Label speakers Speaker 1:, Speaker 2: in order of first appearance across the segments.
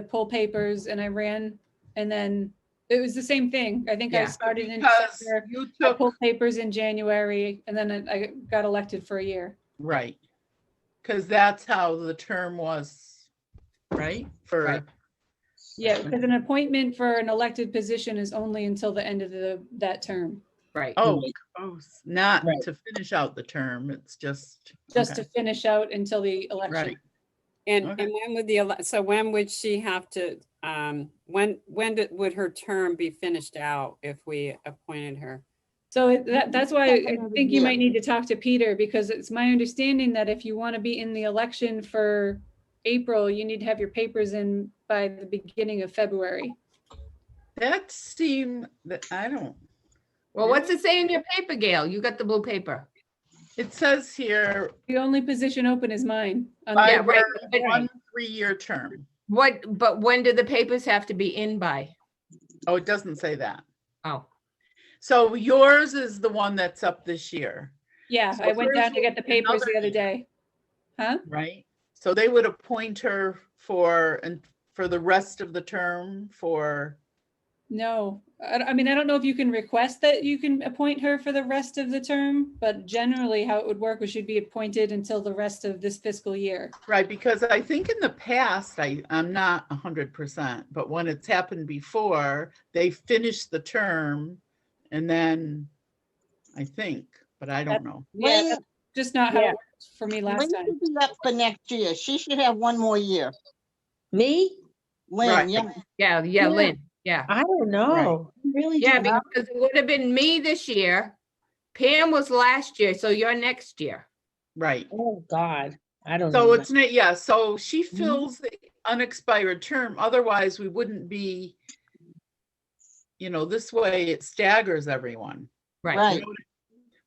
Speaker 1: pull papers and I ran and then it was the same thing. I think I
Speaker 2: Yeah.
Speaker 1: started in
Speaker 3: Because
Speaker 1: December.
Speaker 3: you
Speaker 1: I
Speaker 3: took,
Speaker 1: pulled papers in January and then I I got elected for a year.
Speaker 2: Right,
Speaker 3: because that's how the term was,
Speaker 2: right?
Speaker 3: Right.
Speaker 2: For,
Speaker 1: Yeah, because an appointment for an elected position is only until the end of the, that term,
Speaker 2: right.
Speaker 3: oh, oh, s- not
Speaker 2: Right.
Speaker 3: to finish out the term, it's just.
Speaker 1: just
Speaker 3: okay,
Speaker 1: to finish out until the
Speaker 3: Right,
Speaker 1: election.
Speaker 4: And,
Speaker 3: Okay.
Speaker 4: and when would the, ele- so when would she have to, um, when, when did- would her term be finished out if we appointed her?
Speaker 1: So it- that, that's why I think you might need to talk to Peter because it's my understanding that if you want to be in the election for April, you need to have your papers in by the beginning of February.
Speaker 3: that seemed, that, I don't,
Speaker 2: Well, what's it say in your paper, Gail? You got the blue paper.
Speaker 3: it says here,
Speaker 1: The only position open is mine. Um, on the-
Speaker 3: I
Speaker 2: Yeah, right,
Speaker 3: ran
Speaker 2: right.
Speaker 3: one three-year term.
Speaker 2: What, but when do the papers have to be in by?
Speaker 3: Oh, it doesn't say that.
Speaker 2: Oh,
Speaker 3: So yours is the one that's up this year,
Speaker 1: Yeah,
Speaker 3: So
Speaker 1: I went down to
Speaker 3: there's
Speaker 1: get the papers the
Speaker 3: another-
Speaker 1: other day. Huh?
Speaker 3: right? So they would appoint her for, and for the rest of the term for,
Speaker 1: No, I, I mean, I don't know if you can request that you can appoint her for the rest of the term, but generally how it would work was she'd be appointed until the rest of this fiscal year.
Speaker 3: right, because I think in the past, I, I'm not a hundred percent, but when it's happened before, they finish the term and then, I think, but I don't know.
Speaker 1: Yeah,
Speaker 5: When,
Speaker 1: that's just not how it
Speaker 6: Yeah.
Speaker 1: worked for me last
Speaker 5: when
Speaker 1: time.
Speaker 5: should be up for next year? She should have one more year.
Speaker 6: Me?
Speaker 3: Right.
Speaker 5: Lynn, yeah,
Speaker 2: yeah, yeah,
Speaker 6: Yeah.
Speaker 2: Lynn, yeah.
Speaker 6: I don't know. I Really?
Speaker 2: Yeah,
Speaker 6: don't know.
Speaker 2: because it would have been me this year. Pam was last year, so you're next year.
Speaker 3: Right.
Speaker 6: Oh, God, I don't know.
Speaker 3: So it's, not yeah, so she fills the unexpired term, otherwise we wouldn't be, you know, this way it staggers everyone.
Speaker 2: Right.
Speaker 5: right.
Speaker 2: But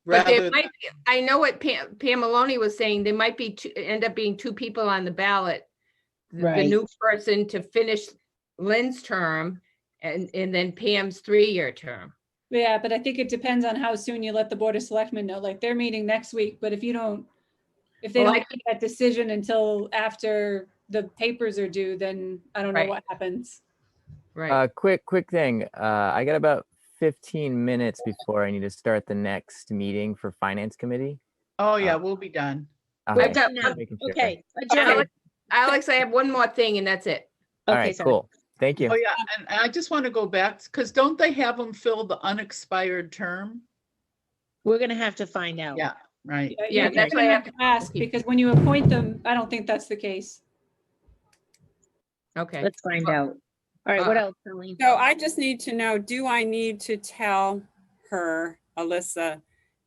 Speaker 3: rather
Speaker 2: there
Speaker 3: than-
Speaker 2: might, be- I know what Pam, Pam Maloney was saying, there might be, two end up being two people on the ballot. th- The
Speaker 6: Right.
Speaker 2: new person to finish Lynn's term and, and then Pam's three-year term.
Speaker 1: Yeah, but I think it depends on how soon you let the Board of Selectmen know, like they're meeting next week, but if you don't, if they
Speaker 2: Well,
Speaker 1: don't
Speaker 2: I
Speaker 1: make that decision until after the papers are due, then I don't know
Speaker 2: Right.
Speaker 1: what happens.
Speaker 2: Right,
Speaker 7: Uh, quick, quick thing. Uh, I got about 15 minutes before I need to start the next meeting for finance committee.
Speaker 3: Oh, yeah, we'll be done.
Speaker 7: Okay,
Speaker 2: I've got, one-
Speaker 7: making sure.
Speaker 6: Okay.
Speaker 2: Alex, Alex, I have one more thing and that's it.
Speaker 7: All
Speaker 6: Okay,
Speaker 7: right,
Speaker 6: sorry.
Speaker 7: cool. Thank you.
Speaker 3: Oh, yeah, and and I just want to go back, because don't they have them fill the unexpired term?
Speaker 6: We're gonna have to find out.
Speaker 3: Yeah, right,
Speaker 1: You-
Speaker 2: Yeah,
Speaker 1: you're
Speaker 2: that's
Speaker 1: gonna
Speaker 2: why I
Speaker 1: have to Ask,
Speaker 2: keep-
Speaker 1: because when you appoint them, I don't think that's the case.
Speaker 2: Okay.
Speaker 6: Let's find out. All right, what
Speaker 2: Uh,
Speaker 6: else, Colleen?
Speaker 4: So I just need to know, do I need to tell her, Alyssa,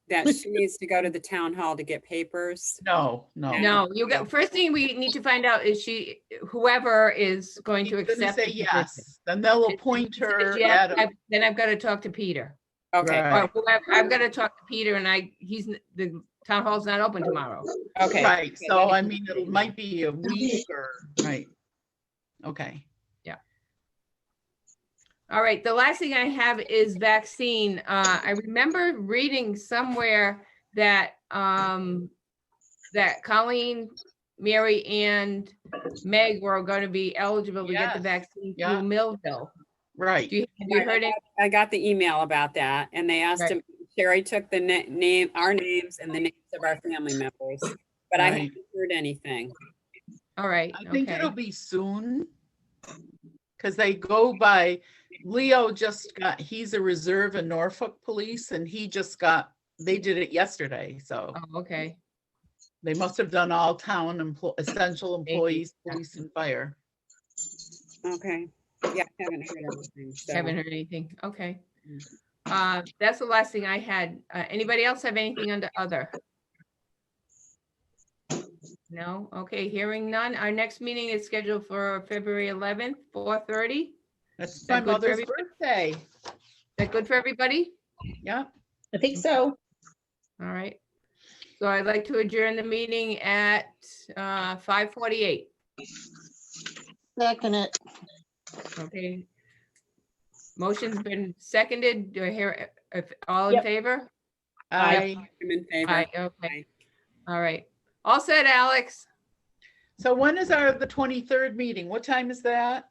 Speaker 4: that she needs to go to the town hall to get papers?
Speaker 3: no, no.
Speaker 2: No, you got, first thing we need to find out is she, whoever is going to
Speaker 3: She's gonna
Speaker 2: accept.
Speaker 3: say
Speaker 2: the position.
Speaker 3: yes, then they'll
Speaker 2: If she
Speaker 3: appoint
Speaker 2: says
Speaker 3: her
Speaker 2: yes,
Speaker 3: at a-
Speaker 2: I've- Then I've got to talk to Peter.
Speaker 4: Okay,
Speaker 3: Right.
Speaker 2: Or whoever, I've got to talk to Peter and I, he's, n- the town hall's not open tomorrow.
Speaker 4: okay.
Speaker 3: Right, so I mean, it might be a week or, right. Okay,
Speaker 2: All right, the last thing I have is vaccine. Uh, I remember reading somewhere that, um, that Colleen, Mary and Meg were going to be eligible to get the
Speaker 3: Yes,
Speaker 2: vaccine
Speaker 3: yeah.
Speaker 2: through Millville.
Speaker 3: right.
Speaker 2: Do you, have you heard it?
Speaker 4: I got the email about that and they asked
Speaker 2: Right.
Speaker 4: him, Sherry took the na- name, our names and the names of our family members, but I
Speaker 3: Right.
Speaker 4: haven't heard anything.
Speaker 2: All right.
Speaker 3: I think
Speaker 2: okay.
Speaker 3: it'll be soon. Cause they go by, Leo just got, he's a reserve in Norfolk Police and he just got, they did it yesterday, so
Speaker 2: Oh, okay.
Speaker 3: they must have done all town emplo- essential
Speaker 2: Maybe,
Speaker 3: employees,
Speaker 2: yeah.
Speaker 3: police and fire.
Speaker 4: Okay, yeah, I haven't heard anything. so-
Speaker 2: Haven't heard anything. Okay.
Speaker 3: Mm.
Speaker 2: Uh, that's the last thing I had. Uh, anybody else have anything under other? No? Okay, hearing none. Our next meeting is scheduled for February eleventh, four thirty. Is
Speaker 3: That's
Speaker 2: that
Speaker 3: my
Speaker 2: good for
Speaker 3: mother's
Speaker 2: everybody?
Speaker 3: birthday.
Speaker 2: that good for everybody?
Speaker 3: Yeah,
Speaker 6: I think so.
Speaker 2: All right. So I'd like to adjourn the meeting at, uh, five forty-eight.
Speaker 5: Second it,
Speaker 2: Okay. Motion's been seconded. Do I hear, if, all in
Speaker 6: Yep.
Speaker 2: favor?
Speaker 3: I,
Speaker 4: I'm in favor.
Speaker 2: Aye, okay. All right. All set, Alex?
Speaker 3: so when is our, the twenty-third meeting? What time is that?